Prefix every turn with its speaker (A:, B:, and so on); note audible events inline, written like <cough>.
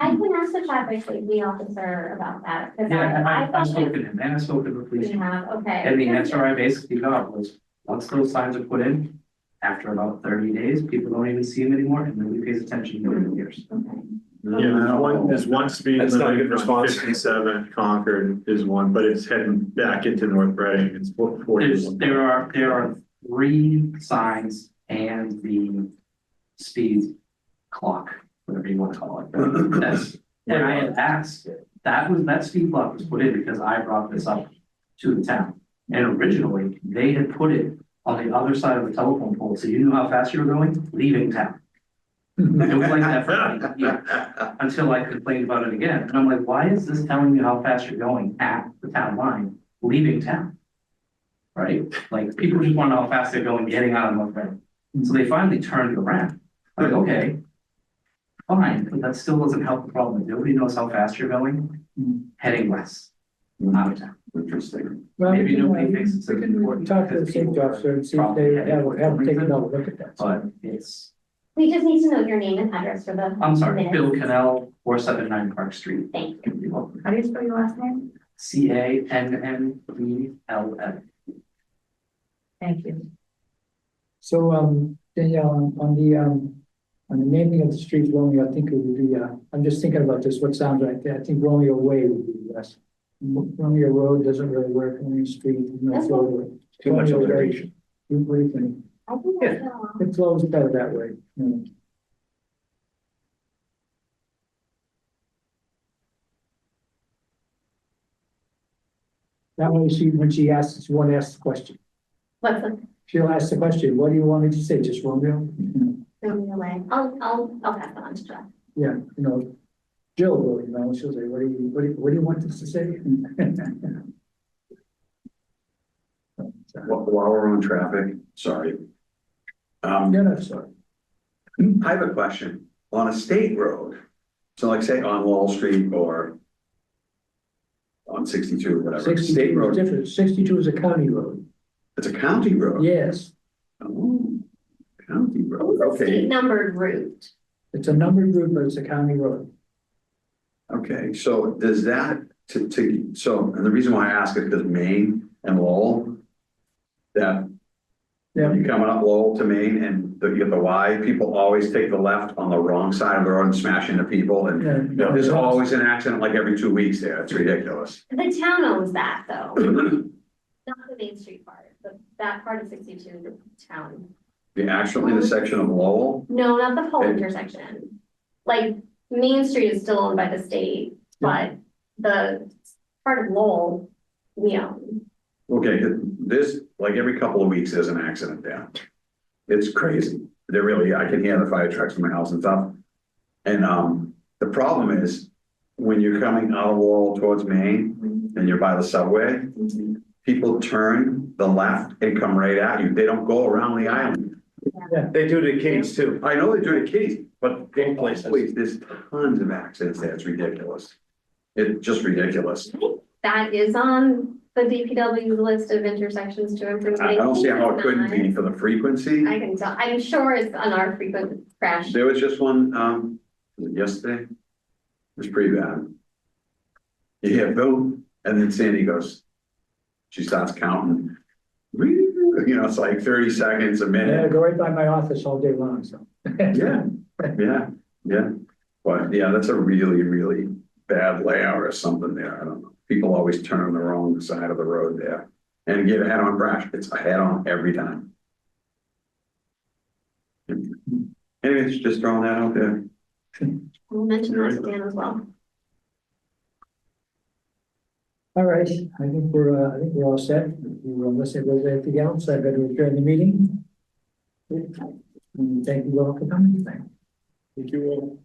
A: just to chat with the officer about that, because
B: Yeah, and
A: I, I
B: I, I
A: thought that
B: spoke to him, and I spoke to the police.
A: we
B: chief.
A: have, okay.
B: And the answer I basically got was, once those signs are put in, after about thirty days, people don't even see them anymore, and nobody pays attention to them in years.
A: Okay.
C: Yeah, there's one, there's one speed
D: That's not a
C: limit
D: good
C: on
D: response.
C: fifty-seven Concord is one, but it's heading back into North Reading, it's forty
B: There's,
C: one.
B: there are, there are three signs and the speed clock, whatever you wanna call it, that's. When I had asked, that was, that speed clock was put in because I brought this up to the town. And originally, they had put it on the other side of the telephone pole, so you knew how fast you were going, leaving town. It was like that for like
C: <laughs>
B: years, until I complained about it again, and I'm like, why is this telling you how fast you're going at the town line, leaving town? Right, like, people just wanna know how fast they're going, getting out of North Reading, so they finally turned it around, I'm like, okay. Fine, but that still doesn't help the problem, nobody knows how fast you're going, heading west, out of town. Interesting.
E: Well,
B: Maybe
E: you know,
B: nobody
E: we
B: thinks it's
E: can
B: important
E: Talk to the
B: because
E: safety
B: people
E: officer and see if
B: probably
E: they
B: had it
E: have,
B: for
E: have taken
B: reason.
E: a look at that.
B: But it's,
A: We just need to know your name and address for the.
B: I'm sorry,
A: minutes.
B: Bill Canal, four seven nine Park Street.
A: Thank you. How do you spell your last name?
B: C A N N E L L.
A: Thank you.
E: So, um, Danielle, on- on the, um, on the naming of the street Romeo, I think it would be, uh, I'm just thinking about this, what sounds right there. I think Romeo Way would be best. M- Romeo Road doesn't really work, Romeo Street, no
A: That's
E: flow. to it.
D: Too much
E: Romeo Way,
D: alliteration.
E: you- What do you think?
A: I think
E: Yeah.
A: that's uh, all.
E: It flows better that way. you know. That way she, when she asks, she won't ask the question.
A: What's the,
E: She'll ask the question, what do you want me to say, just Romeo?
A: the way? I'll, I'll, I'll pass that on to Jeff.
E: Yeah, you know, Jill will, you know, she'll say, what do you, what do you, what do you want us to say?
F: While, while we're on traffic, sorry. Um,
E: No, no, sorry.
F: I have a question. On a state road, so like say on Wall Street or on sixty-two, or whatever, state
E: Sixty-two is
F: road,
E: different, sixty-two is a county road,
F: it's a county road.
E: yes,
F: Oh, County
E: Oh,
F: road,
A: It's a state
F: okay,
A: numbered route.
E: it's a numbered route, but it's a county road.
F: okay, so does that, to, to, so, and the reason why I ask is because Maine and Lowell, that
E: Yeah.
F: you coming up Lowell to Maine and the, you have the Y, people always take the left on the wrong side of the road and smash into people and
E: Yeah,
F: Yeah, There's always an accident like every two weeks there. It's ridiculous. <clears throat>
A: The town owns that, though. Not the Main Street part, but that part of sixty-two, is the town.
F: The actual intersection of Lowell,
A: No, not the whole
F: Okay.
A: intersection. Like, Main Street is still owned by the state, but the part of Lowell, we own.
F: okay, this, like every couple of weeks, there's an accident there. It's crazy. They're really, I can hear the fire trucks from my house and stuff. And, um, the problem is when you're coming out of Lowell towards Maine and you're by the subway, people turn the left and come right at you. They don't go around the island.
D: They do it at Kings too.
F: I know they do it at Kitty's, but
D: Big places.
F: Wait, there's tons of accidents there. It's ridiculous. It's just ridiculous.
A: That is on the DPW's list of intersections to improve.
F: I I don't see how it couldn't
A: It's
F: be for the frequency.
A: not. I can tell, I'm sure it's on our frequent crash.
F: There was just one, um, was it yesterday? It was pretty bad. You hear boom, and then Sandy goes, she starts counting. You know, it's like thirty seconds a
E: Yeah, I
F: minute.
E: go right by my office all day long, so.
F: Yeah, yeah, yeah. But yeah, that's a really, really bad layout or something there. I don't know. People always turn the wrong side of the road there and get a head-on crash. It's a head-on every time. Anyways, just throwing that out there.
A: We'll mention that to Dan as well.
E: All right, I think we're, uh, I think we're all set. If you, uh, Unless there's anything else, I better adjourn the Mm, meeting. And Thank you all for coming. Thank you all.